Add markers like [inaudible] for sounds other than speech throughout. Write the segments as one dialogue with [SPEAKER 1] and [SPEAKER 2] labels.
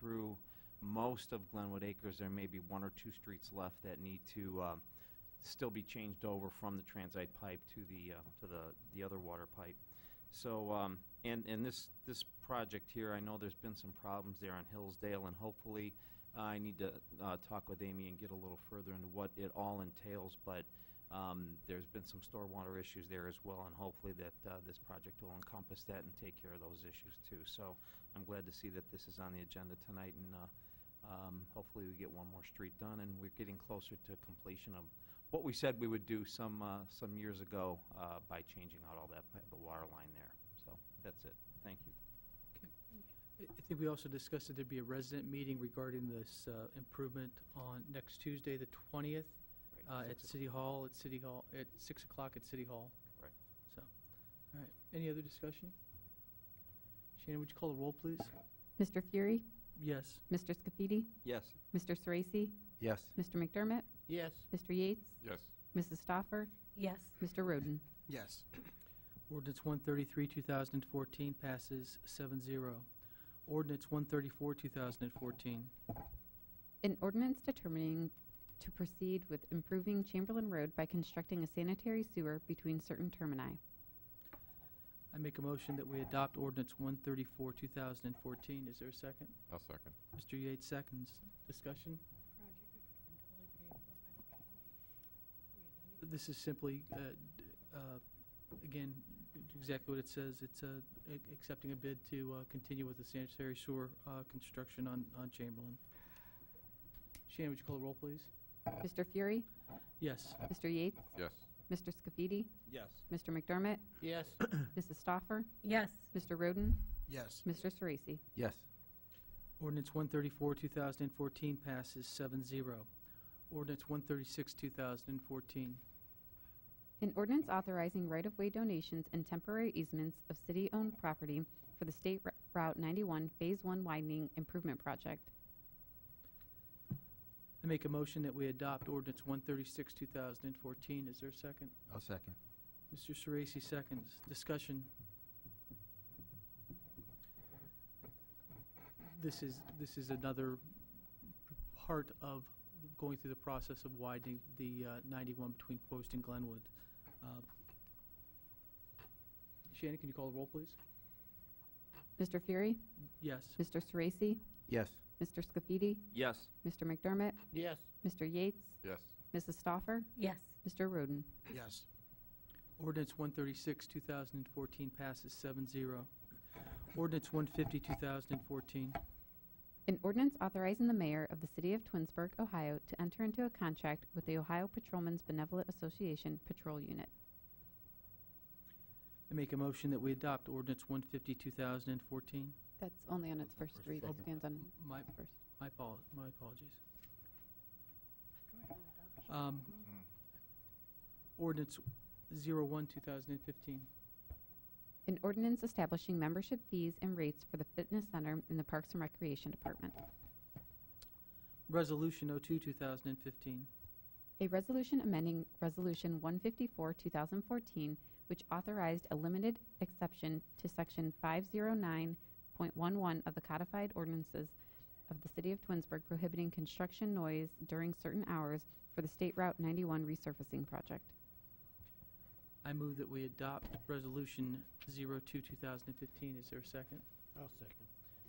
[SPEAKER 1] through most of Glenwood Acres, there may be one or two streets left that need to um, still be changed over from the transite pipe to the, uh, to the, the other water pipe. So, um, and, and this, this project here, I know there's been some problems there on Hillsdale, and hopefully, I need to uh, talk with Amy and get a little further into what it all entails, but um, there's been some stormwater issues there as well, and hopefully that uh, this project will encompass that and take care of those issues too. So I'm glad to see that this is on the agenda tonight, and uh, um, hopefully we get one more street done, and we're getting closer to completion of what we said we would do some, uh, some years ago uh, by changing out all that, pa- the water line there. So that's it. Thank you.
[SPEAKER 2] I I think we also discussed that there'd be a resident meeting regarding this uh, improvement on next Tuesday, the 20th,
[SPEAKER 1] Right,
[SPEAKER 2] uh, at
[SPEAKER 1] six o'clock.
[SPEAKER 2] City Hall, at City Hall, at 6 o'clock at City Hall.
[SPEAKER 1] Correct.
[SPEAKER 2] So, all right. Any other discussion? Shannon, would you call the roll, please?
[SPEAKER 3] Mr. Fury,
[SPEAKER 2] Yes.
[SPEAKER 3] Mr. Scafidi,
[SPEAKER 1] Yes.
[SPEAKER 3] Mr. Sorese,
[SPEAKER 4] Yes.
[SPEAKER 3] Mr. McDermott,
[SPEAKER 2] Yes.
[SPEAKER 3] Mr. Yates,
[SPEAKER 4] Yes.
[SPEAKER 3] Mrs. Stoffer,
[SPEAKER 5] Yes.
[SPEAKER 3] Mr. Roden.
[SPEAKER 4] Yes.
[SPEAKER 2] Ordinance 133, 2014 passes 7-0. Ordinance 134, 2014.
[SPEAKER 3] An ordinance determining to proceed with improving Chamberlain Road by constructing a sanitary sewer between certain termini.
[SPEAKER 2] I make a motion that we adopt ordinance 134, 2014. Is there a second?
[SPEAKER 4] I'll second.
[SPEAKER 2] Mr. Yates seconds. Discussion? This is simply, uh, d- uh, again, exactly what it says. It's uh, a- accepting a bid to uh, continue with the sanitary sewer uh, construction on on Chamberlain. Shannon, would you call the roll, please?
[SPEAKER 3] Mr. Fury,
[SPEAKER 2] Yes.
[SPEAKER 3] Mr. Yates,
[SPEAKER 4] Yes.
[SPEAKER 3] Mr. Scafidi,
[SPEAKER 1] Yes.
[SPEAKER 3] Mr. McDermott, [coughs]
[SPEAKER 2] Yes.
[SPEAKER 3] Mrs. Stoffer,
[SPEAKER 5] Yes.
[SPEAKER 3] Mr. Roden,
[SPEAKER 4] Yes.
[SPEAKER 3] Mr. Sorese.
[SPEAKER 4] Yes.
[SPEAKER 2] Ordinance 134, 2014 passes 7-0. Ordinance 136, 2014.
[SPEAKER 3] An ordinance authorizing right-of-way donations and temporary easements of city-owned property for the State Ru- Route 91 Phase 1 Widening Improvement Project.
[SPEAKER 2] I make a motion that we adopt ordinance 136, 2014. Is there a second?
[SPEAKER 4] I'll second.
[SPEAKER 2] Mr. Sorese seconds. Discussion. This is, this is another p- part of going through the process of widening the uh, 91 between Post and Glenwood. Uh, Shannon, can you call the roll, please?
[SPEAKER 3] Mr. Fury,
[SPEAKER 2] Yes.
[SPEAKER 3] Mr. Sorese,
[SPEAKER 4] Yes.
[SPEAKER 3] Mr. Scafidi,
[SPEAKER 1] Yes.
[SPEAKER 3] Mr. McDermott,
[SPEAKER 2] Yes.
[SPEAKER 3] Mr. Yates,
[SPEAKER 4] Yes.
[SPEAKER 3] Mrs. Stoffer,
[SPEAKER 5] Yes.
[SPEAKER 3] Mr. Roden.
[SPEAKER 4] Yes.
[SPEAKER 2] Ordinance 136, 2014 passes 7-0. Ordinance 150, 2014.
[SPEAKER 3] An ordinance authorizing the mayor of the city of Twinsburg, Ohio to enter into a contract with the Ohio Patrolmen's Benevolent Association Patrol Unit.
[SPEAKER 2] I make a motion that we adopt ordinance 150, 2014.
[SPEAKER 3] That's only on its first read. It stands on
[SPEAKER 2] My,
[SPEAKER 3] its first.
[SPEAKER 2] my apol, my apologies. Um, Ordinance 01, 2015.
[SPEAKER 3] An ordinance establishing membership fees and rates for the fitness center in the Parks and Recreation Department.
[SPEAKER 2] Resolution 02, 2015.
[SPEAKER 3] A resolution amending Resolution 154, 2014, which authorized a limited exception to Section 509.11 of the codified ordinances of the City of Twinsburg prohibiting construction noise during certain hours for the State Route 91 resurfacing project.
[SPEAKER 2] I move that we adopt Resolution 02, 2015. Is there a second?
[SPEAKER 6] I'll second.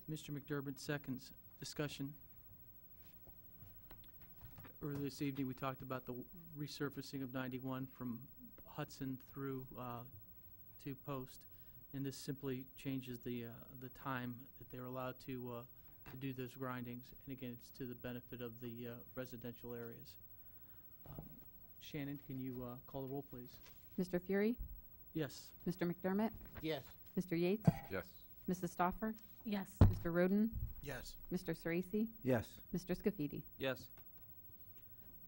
[SPEAKER 2] Mr. McDermott seconds. Discussion. Earlier this evening, we talked about the resurfacing of 91 from Hudson through uh, to Post, and this simply changes the, uh, the time that they're allowed to, uh, to do those grindings. And again, it's to the benefit of the uh, residential areas. Um, Shannon, can you uh, call the roll, please?
[SPEAKER 3] Mr. Fury,
[SPEAKER 2] Yes.
[SPEAKER 3] Mr. McDermott,
[SPEAKER 6] Yes.
[SPEAKER 3] Mr. Yates,
[SPEAKER 4] Yes.
[SPEAKER 3] Mrs. Stoffer,
[SPEAKER 5] Yes.
[SPEAKER 3] Mr. Roden,
[SPEAKER 4] Yes.
[SPEAKER 3] Mr. Sorese,
[SPEAKER 4] Yes.
[SPEAKER 3] Mr. Scafidi.
[SPEAKER 1] Yes.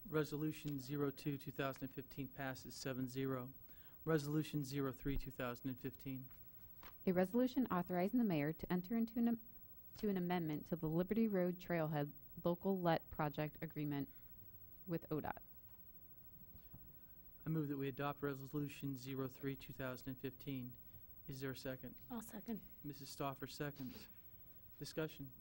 [SPEAKER 2] Resolution 02, 2015 passes 7-0. Resolution 03, 2015.
[SPEAKER 3] A resolution authorizing the mayor to enter into an, am- to an amendment to the Liberty Road Trailhead Local Let Project Agreement with ODOT.
[SPEAKER 2] I move that we adopt Resolution 03, 2015. Is there a second?
[SPEAKER 5] I'll second.
[SPEAKER 2] Mrs. Stoffer seconds. Discussion.